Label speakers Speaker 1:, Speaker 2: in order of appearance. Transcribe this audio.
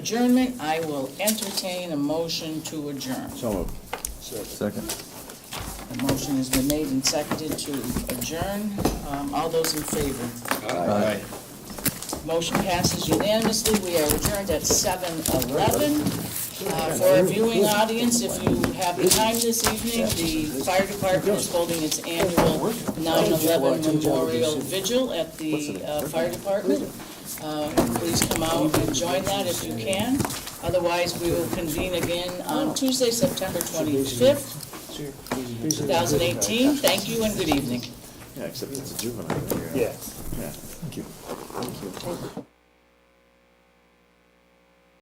Speaker 1: adjournment, I will entertain a motion to adjourn.
Speaker 2: So moved. Second.
Speaker 1: The motion has been made and seconded to adjourn. Um, All those in favor?
Speaker 2: Aye.
Speaker 1: Motion passes unanimously. We are adjourned at 7:11. Uh, For our viewing audience, if you have the time this evening, the fire department is holding its annual 9/11 memorial vigil at the uh, fire department. Uh, Please come out and join that if you can. Otherwise, we will convene again on Tuesday, September 25th, 2018. Thank you and good evening.
Speaker 2: Yeah, except it's a juvenile.
Speaker 3: Yeah.
Speaker 2: Yeah, thank you. Thank you.